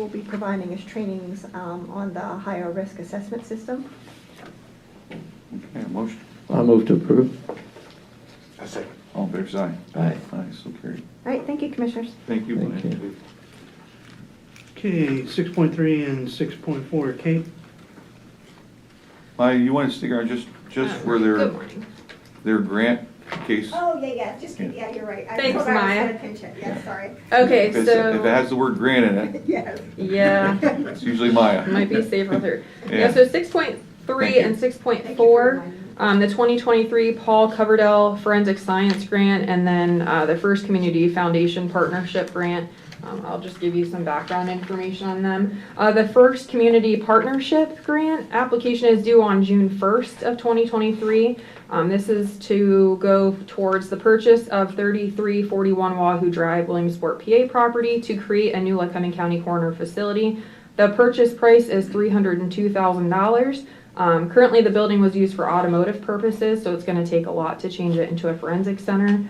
will be providing us trainings um, on the higher risk assessment system. Okay, a motion, I'll move to approve. I second. all fair side. Aye. Aye, so carried. All right, thank you, Commissioners. Thank you, Thank Blaine. Okay, six point three and six point four, Kate? Maya, you want to stick around just, just for their, Uh, Good morning. their grant case? Oh, yeah, yeah, just, yeah, you're right. I Thanks, forgot I was Maya. gonna pinch it. Yeah, sorry. Okay, If it's- If it so, has the word grant in it, Yes. yeah, it's usually Maya. might be safer with her. Yeah. Yeah, so six point Thank three you. and six point Thank you for four, reminding me. um, the twenty twenty-three Paul Coverdell Forensic Science Grant, and then, uh, the First Community Foundation Partnership Grant. Um, I'll just give you some background information on them. Uh, the First Community Partnership Grant application is due on June first of twenty twenty-three. Um, this is to go towards the purchase of thirty-three forty-one Wahoo Drive, Williamsport, PA property to create a new Lycoming County Coroner facility. The purchase price is three hundred and two thousand dollars. Um, currently, the building was used for automotive purposes, so it's gonna take a lot to change it into a forensic center.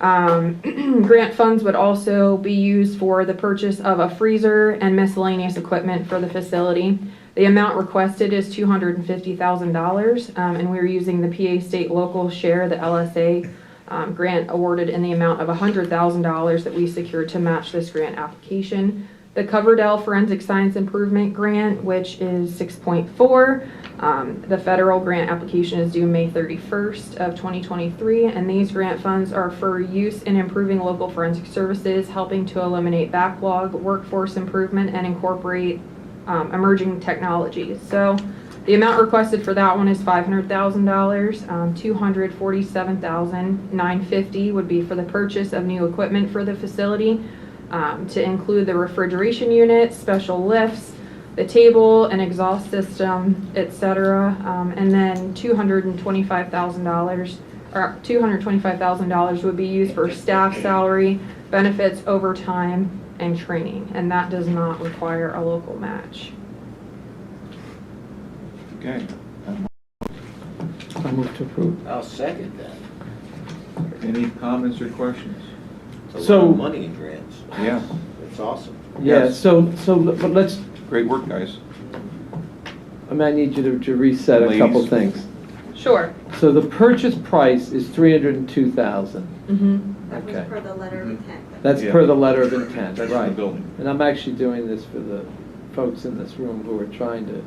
Um, grant funds would also be used for the purchase of a freezer and miscellaneous equipment for the facility. The amount requested is two hundred and fifty thousand dollars, um, and we're using the PA state local share, the LSA, um, grant awarded in the amount of hundred thousand dollars that we secured to match this grant application. The Coverdell Forensic Science Improvement Grant, which is six point four. um, the federal grant application is due May thirty-first of twenty twenty-three, and these grant funds are for use in improving local forensic services, helping to eliminate backlog, workforce improvement, and incorporate um, emerging technologies. So the amount requested for that one is five hundred thousand dollars. Um, two hundred forty-seven thousand nine fifty would be for the purchase of new equipment for the facility, um, to include the refrigeration unit, special lifts, the table, an exhaust system, et cetera. Um, and then two hundred and twenty-five thousand dollars, or two hundred twenty-five thousand dollars would be used for staff salary, benefits, overtime, and training. And that does not require a local match. Okay, I'll move to approve. I'll second that. any comments or questions? It's a lot So- of money in grants. Yeah, It's awesome. Yeah, Yes. so, so, but let's, great work, guys. I mean, I need you to- to reset a couple Ladies. things. Sure. So the purchase price is three hundred and two thousand. Mm-hmm. That was Okay. per the letter of intent. That's Mm-hmm. Yeah. per the letter of intent, That's for the right? building. And I'm actually doing this for the folks in this room who are trying to,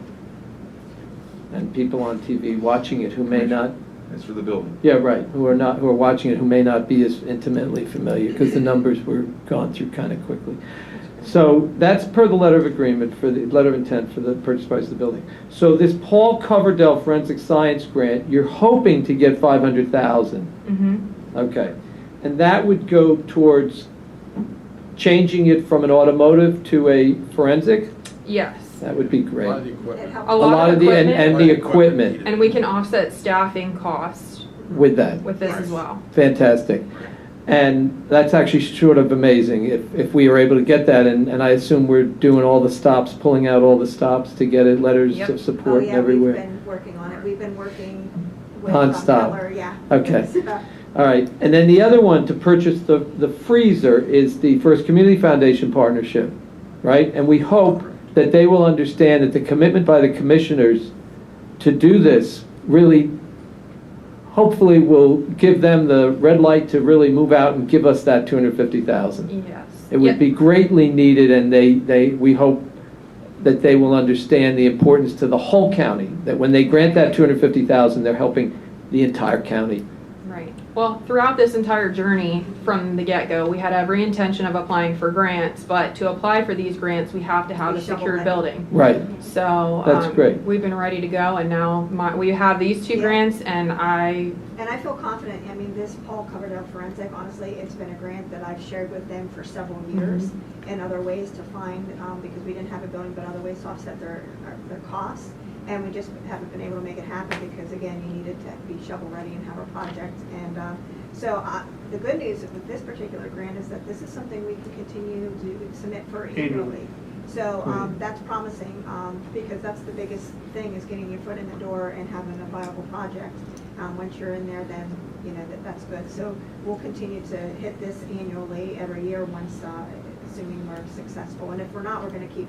and people on TV watching it who may not, That's for the building. yeah, right, who are not, who are watching it who may not be as intimately familiar, because the numbers were gone through kind of quickly. So that's per the letter of agreement for the, letter of intent for the purchase price of the building. So this Paul Coverdell Forensic Science Grant, you're hoping to get five hundred thousand. Mm-hmm. Okay, and that would go towards changing it from an automotive to a forensic? Yes. That would be great. It Oh, helped. A Oh, lot of the and- equipment. And the equipment And we can offset staffing costs with that, with this as well. fantastic. And that's actually sort of amazing, if, if we are able to get that, and, and I assume we're doing all the stops, pulling out all the stops to get it, letters Yep. of Oh, support and yeah, we've everywhere. been working on it. We've been working with. um, Nonstop. Heller, Yeah. Okay. So, All right, and then the other one to purchase the, the freezer is the First Community Foundation Partnership, right? And we hope that they will understand that the commitment by the commissioners to do this really, hopefully will give them the red light to really move out and give us that two hundred fifty thousand. Yes. It would Yep. be greatly needed, and they, they, we hope that they will understand the importance to the whole county, that when they grant that two hundred fifty thousand, they're helping the entire county. Right. Well, throughout this entire journey from the get-go, we had every intention of applying for grants, but to apply for these grants, we have to have We a shovel secured it. building. Right. So. That's um, great. We've been ready to go and now my, we have these two Yeah. grants and I, And I feel confident, I mean, this Paul Coverdell Forensic, honestly, it's been a grant that I've shared with them for several years Mm-hmm. and other ways to find, um, because we didn't have a building, but other ways to offset their, our- their costs. And we just haven't been able to make it happen because again, you needed to be shovel-ready and have a project. And, uh, so, uh, the good news with this particular grant is that this is something we can continue to submit for annually. Annually. So, um, that's promising, um, because that's the biggest thing is getting your foot in the door and having a viable project. Um, once you're in there, then, you know, that, that's good. So we'll continue to hit this annually every year once, uh, assuming we're successful. And if we're not, we're gonna keep